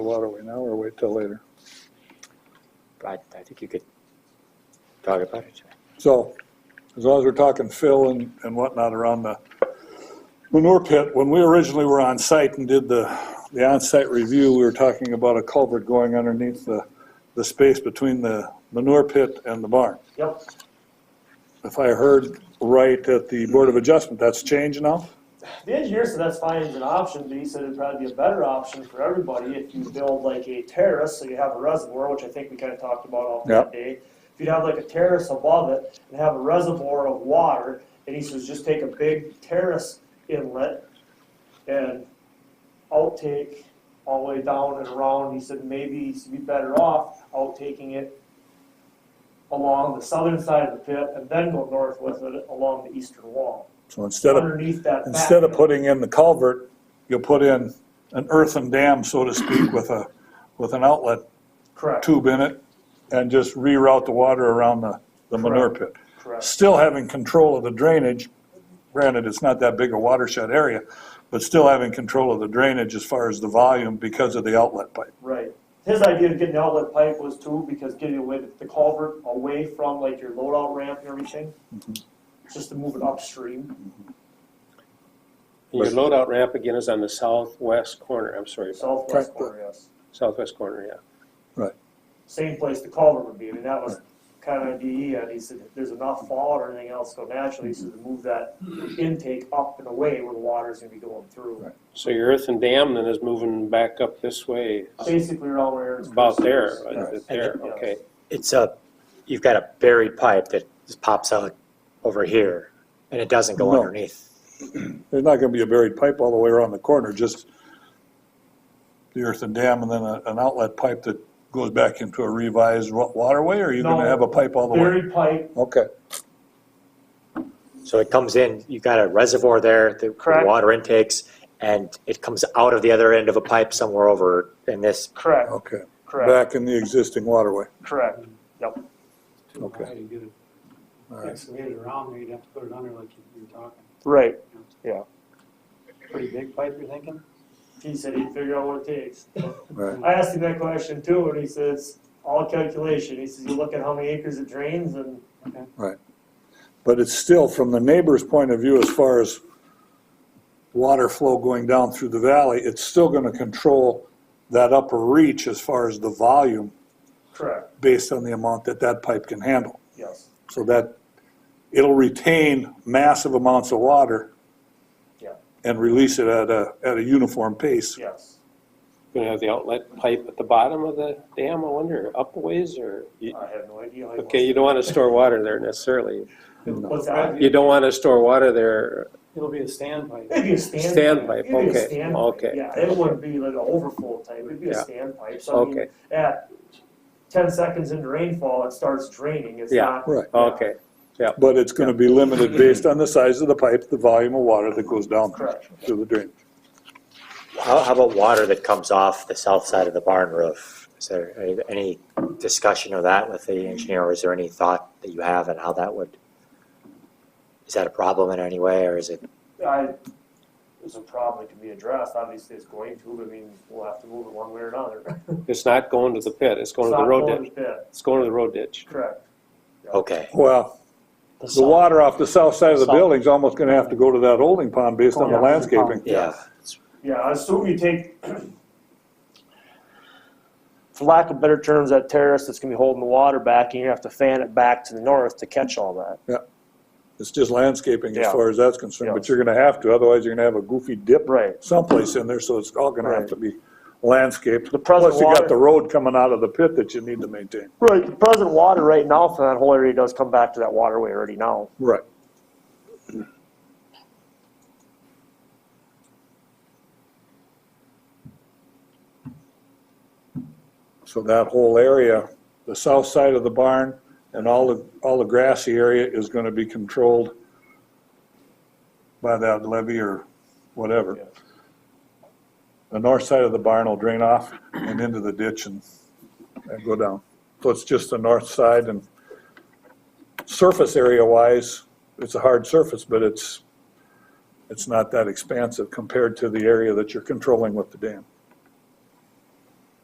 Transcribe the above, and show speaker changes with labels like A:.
A: Waterway now or wait till later?
B: I, I think you could talk about it.
A: So, as long as we're talking fill and, and whatnot around the manure pit, when we originally were on site and did the, the on-site review, we were talking about a culvert going underneath the, the space between the manure pit and the barn.
C: Yep.
A: If I heard right at the Board of Adjustment, that's changed now?
C: The engineer said that's fine as an option, but he said it'd probably be a better option for everybody if you build like a terrace, so you have a reservoir, which I think we kind of talked about all
A: Yep.
C: that day. If you'd have like a terrace above it and have a reservoir of water, and he says just take a big terrace inlet and outtake all the way down and around. He said maybe you'd be better off outtaking it along the southern side of the pit and then go north with it along the eastern wall.
A: So instead of,
C: underneath that.
A: instead of
C: backfill.
A: putting in the culvert, you'll put in an earthen dam, so to speak, with a, with an outlet
C: Correct,
A: tube in it and just reroute the water around the, the manure pit.
C: correct.
A: Still having control of the drainage, granted, it's not that big a watershed area, but still having control of the drainage as far as the volume because of the outlet pipe.
C: Right. His idea of getting the outlet pipe was too, because getting away, the culvert away from like your loadout ramp and everything,
A: Mm-hmm.
C: just to move it upstream,
D: Your loadout ramp again is on the southwest corner, I'm sorry,
C: southwest
A: Correct.
C: corner, yes.
D: southwest corner, yeah.
C: Same place the culvert would be, I mean, that was kind of DE, and he said, if there's enough fall or anything else go naturally, he said to move that intake up and away where the water's gonna be going through.
D: So your earthen dam then is moving back up this way,
C: Basically around where it's.
D: about there, uh,
A: Right.
D: there, okay.
B: It's a, you've got a buried pipe that just pops out over here, and it doesn't go
A: No.
B: underneath.
A: There's not gonna be a buried pipe all the way around the corner, just the earthen dam and then a- an outlet pipe that goes back into a revised wa- waterway, or are you gonna
C: No,
A: have a pipe all the way?
C: Buried pipe,
A: Okay,
B: So it comes in, you've got a reservoir there, the
C: Correct.
B: water intakes, and it comes out of the other end of a pipe somewhere over in this.
C: correct,
A: okay.
C: correct,
A: Oh, Back in the existing waterway,
C: correct, yep.
E: too
A: Okay.
E: high to get it
A: all right.
E: excavated around there, you'd have to put it under like you- you're talking.
C: Right,
E: you know, it's
C: yeah.
E: a Pretty big pipe, you're thinking?
C: He said he'd figure out what it takes.
A: Right.
C: I asked him that question too, and he says, all calculation, he says, you look at how many acres it drains and,
E: Okay.
A: But it's still, from the neighbor's point of view, as far as water flow going down through the valley, it's still gonna control that upper reach as far as the volume
C: correct,
A: based on the amount that that pipe can handle.
C: yes,
A: So that, it'll retain massive amounts of water
C: Yeah.
A: and release it at a, at a uniform pace.
C: yes.
D: You're gonna have the outlet pipe at the bottom of the dam, I wonder, up a ways or? you-
C: I have no idea. how he wants
D: Okay, you don't wanna store water there necessarily.
C: to- What's that?
D: You don't wanna store water there,
E: It'll be a stand pipe.
C: It'd be a stand.
D: Standpipe,
C: It'd be a
D: okay,
C: standpipe,
D: okay.
C: Yeah, it wouldn't be like an overflow type, it'd be a
D: Yeah.
C: standpipe, so I mean,
D: okay,
C: at ten seconds into rainfall, it starts draining, it's
D: Yeah.
C: not.
A: Right.
D: okay.
A: But it's gonna be limited based on the size of the pipe, the volume of water that goes down
C: Correct.
A: through the drain.
B: How, how about water that comes off the south side of the barn roof? Is there any discussion of that with the engineer, or is there any thought that you have on how that would? Is that a problem in any way, or is it
C: I, it's a problem that can be addressed, obviously it's going to, but I mean, we'll have to move it one way or another.
D: It's not going to the pit, it's going
C: It's
D: to the
C: not
D: road
C: going
D: ditch,
C: to the pit,
D: it's going to the road ditch.
C: Correct.
B: okay?
A: Well, The water off the south side of the building's almost gonna have to go to that holding pond based on the
E: Yeah.
A: landscaping.
B: Yeah.
C: Yeah, I assume you take, for lack of better terms, that terrace that's gonna be holding the water back, and you have to fan it back to the north to catch all that.
A: It's just landscaping as
C: Yeah.
A: far as that's concerned, but you're gonna have to, otherwise you're gonna have a goofy dip
C: Right.
A: someplace in there, so it's all gonna have
C: Right.
A: to be landscaped.
C: The present
A: Plus you got
C: water-
A: the road coming out of the pit that you need to maintain.
C: Right, the present water right now for that whole area does come back to that waterway already now.
A: Right. So that whole area, the south side of the barn and all the, all the grassy area is gonna be controlled by that levee or
C: Yeah.
A: whatever. The north side of the barn will drain off and into the ditch and, and go down. So it's just the north side and surface area wise, it's a hard surface, but it's, it's not that expansive compared to the area that you're controlling with the dam.